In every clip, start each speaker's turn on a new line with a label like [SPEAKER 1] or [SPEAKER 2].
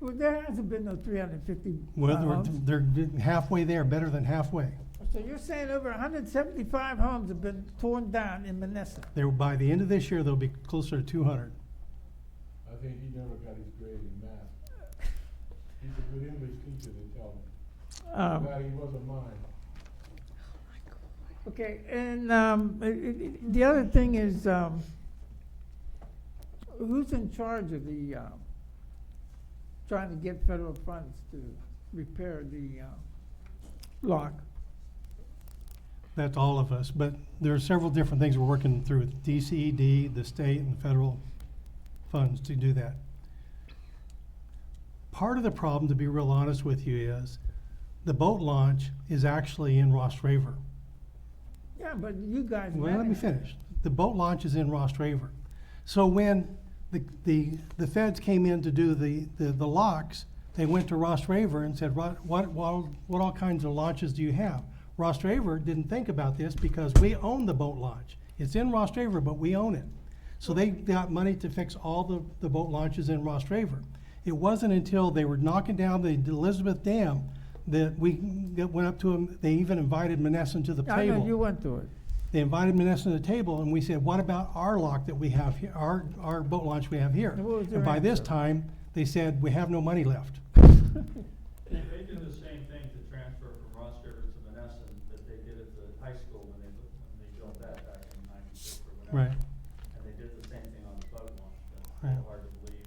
[SPEAKER 1] Well, there hasn't been no three hundred and fifty.
[SPEAKER 2] Well, they're they're halfway there, better than halfway.
[SPEAKER 1] So you're saying over hundred and seventy-five homes have been torn down in Menneson?
[SPEAKER 2] They're, by the end of this year, they'll be closer to two hundred.
[SPEAKER 3] I think he never got his grade in math. He's a good English teacher, they tell me.
[SPEAKER 1] Um,
[SPEAKER 3] Glad he wasn't mine.
[SPEAKER 1] Okay, and, um, i- i- i- the other thing is, um, who's in charge of the, um, trying to get federal funds to repair the, um, lock?
[SPEAKER 2] That's all of us, but there are several different things we're working through with DCED, the state and the federal funds to do that. Part of the problem, to be real honest with you, is the boat launch is actually in Ross River.
[SPEAKER 1] Yeah, but you guys.
[SPEAKER 2] Well, let me
[SPEAKER 1] manage-
[SPEAKER 2] finish. The boat launch is in Ross River. So when the, the, the feds came in to do the, the, the locks, they went to Ross River and said, what, what, what, what all kinds of launches do you have? Ross River didn't think about this because we own the boat launch. It's in Ross River, but we own it. So they got money to fix all the, the boat launches in Ross River. It wasn't until they were knocking down the Elizabeth Dam that we, that went up to them, they even invited Menneson to the table.
[SPEAKER 1] I know you went to it.
[SPEAKER 2] They invited Menneson to the table, and we said, what about our lock that we have here, our, our boat launch we have here?
[SPEAKER 1] And what was their
[SPEAKER 2] And by this
[SPEAKER 1] answer?
[SPEAKER 2] time, they said, we have no money left.
[SPEAKER 4] They, they do the same thing to transfer from Ross River to Menneson that they did at the high school when they, bu- when they built that back in ninety-six or whatever.
[SPEAKER 2] Right.
[SPEAKER 4] And they did the same thing on the boat launch, but it's
[SPEAKER 2] Right.
[SPEAKER 4] hard to believe,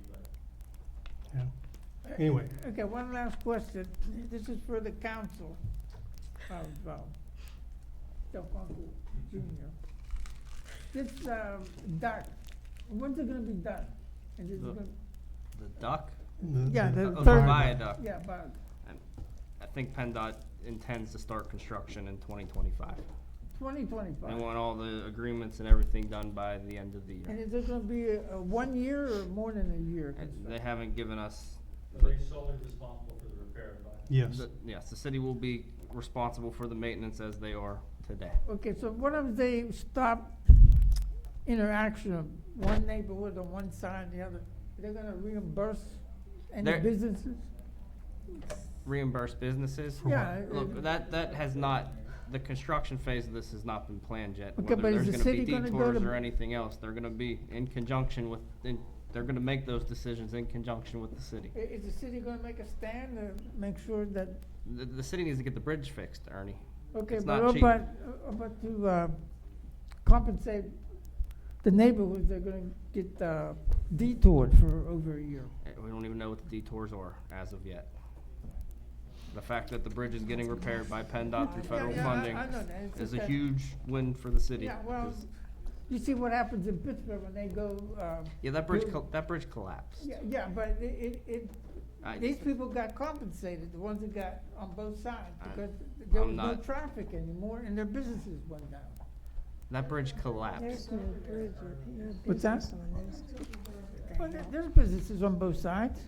[SPEAKER 4] but
[SPEAKER 2] Yeah. Anyway,
[SPEAKER 1] Okay, one last question. This is for the council of, um, Del Conte Junior. This, um, dock, when's it gonna be done? Is it
[SPEAKER 5] The-
[SPEAKER 1] gonna-
[SPEAKER 5] The duck?
[SPEAKER 2] the-
[SPEAKER 1] Yeah,
[SPEAKER 2] the-
[SPEAKER 1] the
[SPEAKER 5] Oh, the
[SPEAKER 1] third-
[SPEAKER 5] viaduct.
[SPEAKER 1] Yeah, about
[SPEAKER 5] I think PennDOT intends to start construction in twenty twenty-five.
[SPEAKER 1] twenty
[SPEAKER 5] They
[SPEAKER 1] twenty-five.
[SPEAKER 5] want all the agreements and everything done by the end of the
[SPEAKER 1] And
[SPEAKER 5] year.
[SPEAKER 1] is it gonna be a, a one year or more than a year? uh,
[SPEAKER 5] And They
[SPEAKER 1] construction?
[SPEAKER 5] haven't given us,
[SPEAKER 4] are they solely responsible for the repair of that?
[SPEAKER 2] Yes,
[SPEAKER 5] the- yes, the city will be responsible for the maintenance as they are today.
[SPEAKER 1] Okay, so what if they stop interaction of one neighborhood on one side and the other? They're gonna reimburse any
[SPEAKER 5] They're-
[SPEAKER 1] businesses?
[SPEAKER 5] Reimburse businesses?
[SPEAKER 2] For what?
[SPEAKER 1] Yeah, it-
[SPEAKER 5] Look, that, that has not, the construction phase of this has not been planned yet.
[SPEAKER 1] Okay,
[SPEAKER 5] Whether
[SPEAKER 1] but is
[SPEAKER 5] there's
[SPEAKER 1] the
[SPEAKER 5] gonna be
[SPEAKER 1] city gonna go
[SPEAKER 5] detours
[SPEAKER 1] to-
[SPEAKER 5] Or anything else, they're gonna be in conjunction with, in, they're gonna make those decisions in conjunction with the city.
[SPEAKER 1] I- Is the city gonna make a stand to make sure that,
[SPEAKER 5] The, the city needs to get the bridge fixed, Ernie.
[SPEAKER 1] okay,
[SPEAKER 5] It's
[SPEAKER 1] but
[SPEAKER 5] not
[SPEAKER 1] what
[SPEAKER 5] cheap.
[SPEAKER 1] about, uh, about to, uh, compensate the neighborhoods, they're gonna get, uh, detoured for over a year.
[SPEAKER 5] Eh, We don't even know what the detours are as of yet. The fact that the bridge is getting repaired by PennDOT through
[SPEAKER 1] Yeah,
[SPEAKER 5] federal
[SPEAKER 1] yeah, I-
[SPEAKER 5] funding
[SPEAKER 1] I know that. It's
[SPEAKER 5] is
[SPEAKER 1] just
[SPEAKER 5] a
[SPEAKER 1] that-
[SPEAKER 5] huge win for the city.
[SPEAKER 1] Yeah, well,
[SPEAKER 5] 'cause-
[SPEAKER 1] you see what happens in Pittsburgh when they go, uh,
[SPEAKER 5] Yeah, that bridge,
[SPEAKER 1] you-
[SPEAKER 5] col- that bridge collapsed.
[SPEAKER 1] yeah, yeah, but it, it, it,
[SPEAKER 5] I-
[SPEAKER 1] These people got compensated, the ones that got on both sides,
[SPEAKER 5] I-
[SPEAKER 1] because there
[SPEAKER 5] I'm
[SPEAKER 1] was no
[SPEAKER 5] not-
[SPEAKER 1] traffic anymore and their businesses went down.
[SPEAKER 5] That bridge collapsed.
[SPEAKER 6] There's no bridge or no
[SPEAKER 1] What's that?
[SPEAKER 6] business on this.
[SPEAKER 1] Well, there- there's businesses on both sides.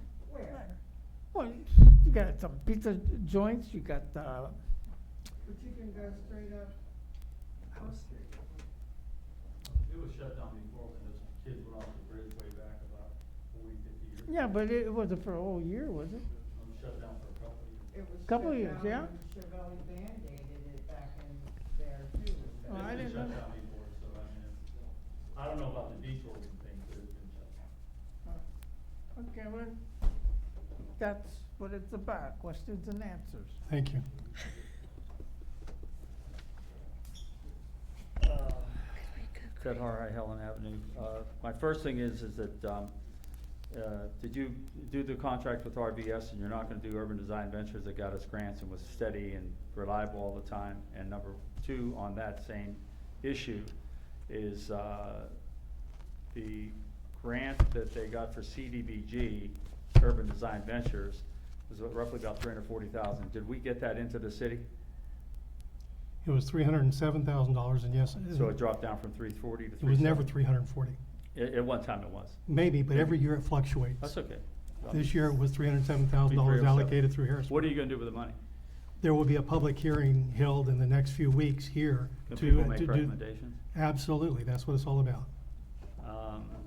[SPEAKER 1] Well, you got some pizza joints, you got, uh. But you can go straight up.
[SPEAKER 4] It was shut down before when those kids went off the bridge way back about forty, fifty years.
[SPEAKER 1] Yeah, but it wasn't for a whole year, was it?
[SPEAKER 4] It was shut down for a couple of years.
[SPEAKER 7] It was
[SPEAKER 1] Couple
[SPEAKER 7] shut
[SPEAKER 1] years,
[SPEAKER 7] down
[SPEAKER 1] yeah.
[SPEAKER 7] when Chevelle Band-Aided it back in there too.
[SPEAKER 1] Oh, I didn't
[SPEAKER 4] It's been shut
[SPEAKER 1] know.
[SPEAKER 4] down before, so I mean, it's, I don't know about the detours and things, but it's been shut down.
[SPEAKER 1] Okay, well, that's what it's about, questions and answers.
[SPEAKER 2] thank you.
[SPEAKER 4] Fred Harhai, Um, Helen Avenue. Uh, My first thing is, is that, um, uh, did you do the contract with RVS and you're not gonna do Urban Design Ventures that got us grants and was steady and reliable all the time? And number two, on that same issue, is uh, the grant that they got for CDBG, Urban Design Ventures, was roughly about three hundred forty thousand. Did we get that into the city?
[SPEAKER 2] It was three hundred and seven thousand dollars and yes,
[SPEAKER 4] So it dropped down from three forty to
[SPEAKER 2] it
[SPEAKER 4] three
[SPEAKER 2] was
[SPEAKER 4] seventy?
[SPEAKER 2] never three hundred and forty.
[SPEAKER 4] At, at one time it was.
[SPEAKER 2] Maybe, but every year it fluctuates.
[SPEAKER 4] That's okay.
[SPEAKER 2] This year it was three hundred and seven thousand dollars
[SPEAKER 4] 307.
[SPEAKER 2] allocated through Harrisburg.
[SPEAKER 4] What are you gonna do with the money?
[SPEAKER 2] There will be a public hearing held in the next few weeks here
[SPEAKER 4] Can
[SPEAKER 2] to,
[SPEAKER 4] people
[SPEAKER 2] to
[SPEAKER 4] make
[SPEAKER 2] do.
[SPEAKER 4] recommendations?
[SPEAKER 2] Absolutely, that's what it's all about.
[SPEAKER 4] Um,